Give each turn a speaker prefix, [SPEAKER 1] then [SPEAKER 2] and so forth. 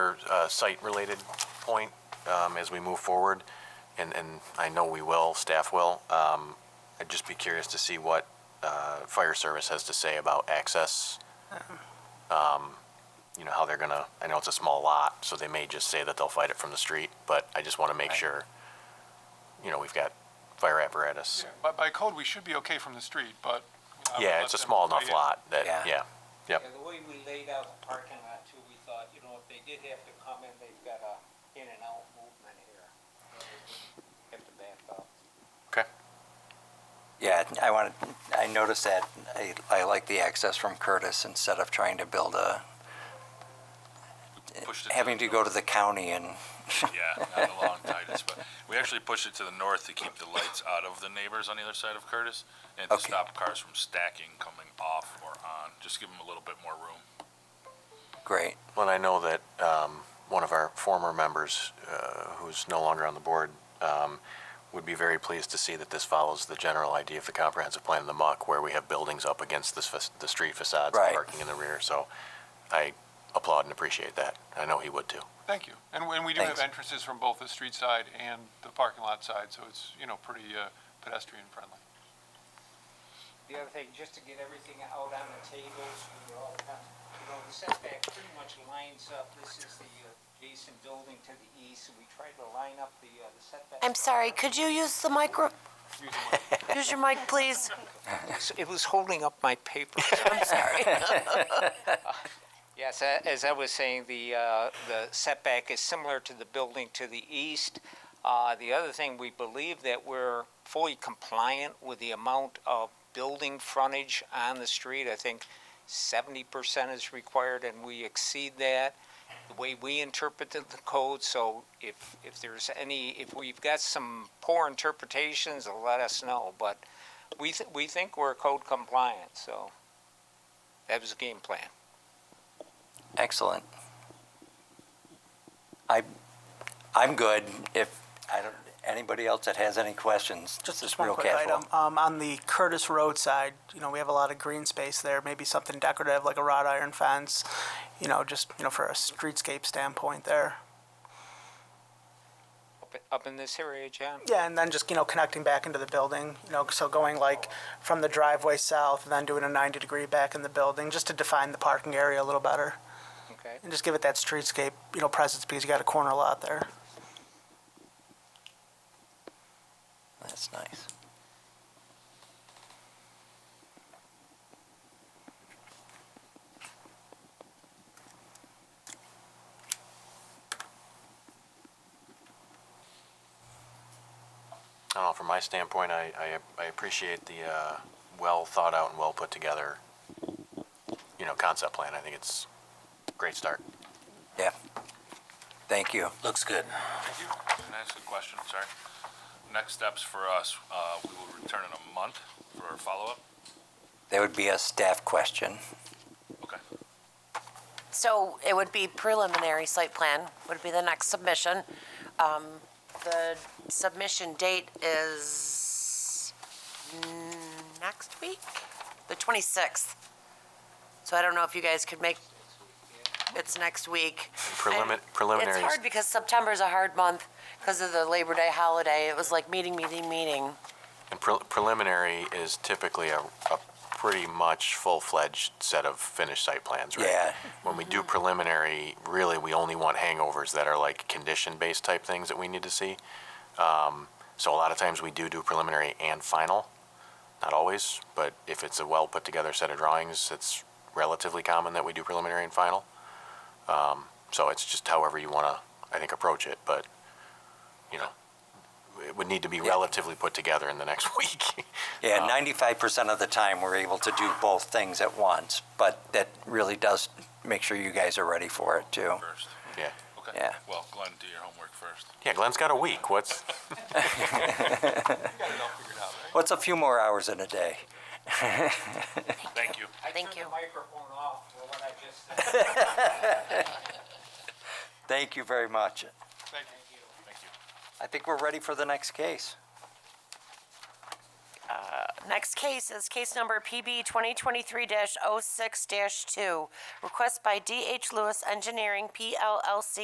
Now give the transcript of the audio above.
[SPEAKER 1] uh, site-related point um, as we move forward, and, and I know we will, staff will. Um, I'd just be curious to see what uh, fire service has to say about access. Um, You know, how they're gonna, I know it's a small lot, so they may just say that they'll fight it from the street, but I just want to make sure, you know, we've got fire apparatus.
[SPEAKER 2] Yeah, By, by code, we should be okay from the street, but. you know, I would
[SPEAKER 1] Yeah,
[SPEAKER 2] let
[SPEAKER 1] it's a
[SPEAKER 2] them
[SPEAKER 1] small enough
[SPEAKER 2] weigh in.
[SPEAKER 1] lot that,
[SPEAKER 3] Yeah.
[SPEAKER 1] yeah, yep.
[SPEAKER 4] Yeah, the way we laid out the parking lot too, we thought, you know, if they did have to come in, they've got a in and out movement here. Have to back up.
[SPEAKER 1] Okay,
[SPEAKER 3] Yeah, I wanted, I noticed that, I, I like the access from Curtis instead of trying to build a,
[SPEAKER 5] pushed it
[SPEAKER 3] having to go to the county and,
[SPEAKER 5] Yeah, not along Titus, but we actually pushed it to the north to keep the lights out of the neighbors on the other side of Curtis and to
[SPEAKER 3] Okay.
[SPEAKER 5] stop cars from stacking coming off or on. Just give them a little bit more room.
[SPEAKER 3] great,
[SPEAKER 1] Well, I know that um, one of our former members, uh, who's no longer on the board, um, would be very pleased to see that this follows the general idea of the comprehensive plan of the muck, where we have buildings up against the, fac- the street facades, and
[SPEAKER 3] Right.
[SPEAKER 1] parking in the rear. So I applaud and appreciate that. I know he would too.
[SPEAKER 2] Thank you. And, we- and we do have
[SPEAKER 3] Thanks.
[SPEAKER 2] entrances from both the street side and the parking lot side, so it's, you know, pretty uh, pedestrian friendly.
[SPEAKER 4] The other thing, just to get everything out on the tables, we were all kind of, you know, the setback pretty much lines up. This is the uh, adjacent building to the east, and we tried to line up the, uh, the setback.
[SPEAKER 6] I'm sorry, could you use the micro, use your mic, please?
[SPEAKER 4] It was holding up my paper.
[SPEAKER 6] I'm sorry.
[SPEAKER 4] Yes, a- as I was saying, the, uh, the setback is similar to the building to the east. Uh, The other thing, we believe that we're fully compliant with the amount of building frontage on the street. I think seventy percent is required, and we exceed that, the way we interpreted the code. So if, if there's any, if we've got some poor interpretations, let us know. But we, th- we think we're code compliant, so that was the game plan.
[SPEAKER 3] excellent. I, I'm good if, I don't, anybody else that has any questions,
[SPEAKER 7] Just,
[SPEAKER 3] just
[SPEAKER 7] just one
[SPEAKER 3] real
[SPEAKER 7] quick
[SPEAKER 3] casual.
[SPEAKER 7] item. Um, on the Curtis Road side, you know, we have a lot of green space there. Maybe something decorative like a wrought iron fence, you know, just, you know, for a streetscape standpoint there.
[SPEAKER 4] Up, up in this area, John?
[SPEAKER 7] Yeah, and then just, you know, connecting back into the building, you know, so going like from the driveway south and then doing a 90 degree back in the building just to define the parking area a little better
[SPEAKER 4] Okay.
[SPEAKER 7] and just give it that streetscape, you know, presence because you got a corner lot there.
[SPEAKER 3] That's nice.
[SPEAKER 1] I don't know, from my standpoint, I, I, I appreciate the uh, well thought out and well put together, you know, concept plan. I think it's a great start.
[SPEAKER 3] Yeah. Thank you. Looks good.
[SPEAKER 5] Thank you. Can I ask a question? Sorry. Next steps for us, uh, we will return in a month for our follow-up.
[SPEAKER 3] That would be a staff question.
[SPEAKER 5] Okay.
[SPEAKER 6] So it would be preliminary site plan, would be the next submission. Um, The submission date is mm, next week, the 26th. So I don't know if you guys could make, it's next week.
[SPEAKER 1] Prelimi-
[SPEAKER 6] I-
[SPEAKER 1] preliminary
[SPEAKER 6] It's hard because September's a hard month because of the Labor Day holiday. It was like meeting, meeting, meeting.
[SPEAKER 1] And pre- preliminary is typically a, a pretty much full-fledged set of finished site plans, right?
[SPEAKER 3] Yeah.
[SPEAKER 1] When we do preliminary, really, we only want hangovers that are like condition-based type things that we need to see. Um, so a lot of times we do do preliminary and final, not always, but if it's a well-put-together set of drawings, it's relatively common that we do preliminary and final. Um, so it's just however you want to, I think, approach it, but, you know, it would need to be relatively put together in the next week.
[SPEAKER 5] Uh,
[SPEAKER 3] Yeah, ninety-five percent of the time, we're able to do both things at once, but that really does make sure you guys are ready for it too.
[SPEAKER 5] First.
[SPEAKER 1] Yeah.
[SPEAKER 5] Okay.
[SPEAKER 3] Yeah.
[SPEAKER 5] Well, Glenn, do your homework first.
[SPEAKER 1] Yeah, Glenn's got a week. What's
[SPEAKER 2] We got it all figured out, right?
[SPEAKER 3] What's a few more hours in a day?
[SPEAKER 5] Thank you.
[SPEAKER 6] Thank
[SPEAKER 4] I turned
[SPEAKER 6] you.
[SPEAKER 4] the microphone off for what I just said.
[SPEAKER 3] Thank you very much.
[SPEAKER 2] Thank you.
[SPEAKER 5] Thank you.
[SPEAKER 3] I think we're ready for the next case.
[SPEAKER 6] Next case is case number PB 2023-06-2. Request by DH Lewis Engineering PLLC